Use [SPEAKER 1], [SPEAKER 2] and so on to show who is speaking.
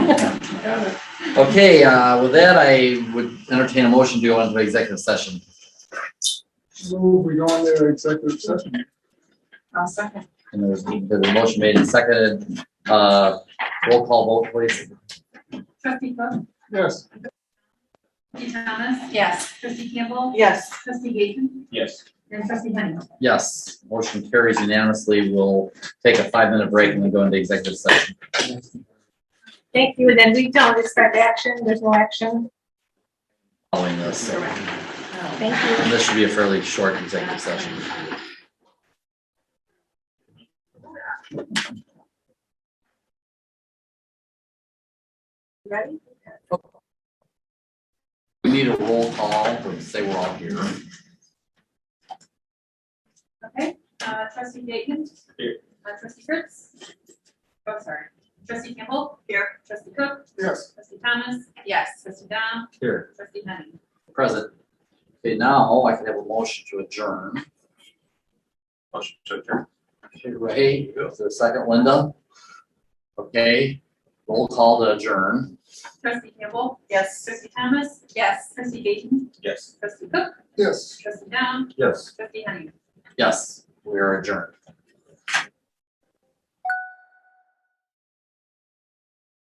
[SPEAKER 1] Okay, uh, with that, I would entertain a motion to go into executive session.
[SPEAKER 2] Move, we go into executive session.
[SPEAKER 3] I'll second.
[SPEAKER 1] And there's, there's a motion made and seconded, uh, roll call vote, please.
[SPEAKER 4] Trustee Cook,
[SPEAKER 2] Yes.
[SPEAKER 4] trustee Thomas,
[SPEAKER 3] Yes.
[SPEAKER 4] trustee Campbell,
[SPEAKER 3] Yes.
[SPEAKER 4] trustee Gaten,
[SPEAKER 2] Yes.
[SPEAKER 4] and trustee Henry.
[SPEAKER 1] Yes, motion carries unanimously. We'll take a five-minute break and then go into executive session.
[SPEAKER 3] Thank you, and then we don't expect action, there's no action,
[SPEAKER 1] Following this,
[SPEAKER 3] thank you.
[SPEAKER 1] and this should be a fairly short executive session.
[SPEAKER 3] Ready?
[SPEAKER 1] We need a roll call, to say we're all here.
[SPEAKER 4] Okay, uh, trustee Gaten.
[SPEAKER 2] Here.
[SPEAKER 4] Uh, trustee Fritz. Oh, sorry. Trustee Campbell. Here. Trustee Cook,
[SPEAKER 2] Yes.
[SPEAKER 4] trustee Thomas,
[SPEAKER 3] Yes.
[SPEAKER 4] trustee Dom,
[SPEAKER 1] Here.
[SPEAKER 4] trustee Henry.
[SPEAKER 1] Present. Okay, now I can have a motion to adjourn.
[SPEAKER 5] Motion to adjourn.
[SPEAKER 1] Okay, Ray, is there a second, Linda? Okay, roll call to adjourn.
[SPEAKER 4] Trustee Campbell,
[SPEAKER 3] Yes.
[SPEAKER 4] trustee Thomas,
[SPEAKER 3] Yes.
[SPEAKER 4] trustee Gaten,
[SPEAKER 5] Yes.
[SPEAKER 4] trustee Cook,
[SPEAKER 2] Yes.
[SPEAKER 4] trustee Dom,
[SPEAKER 5] Yes.
[SPEAKER 4] trustee Henry.
[SPEAKER 1] Yes, we are adjourned.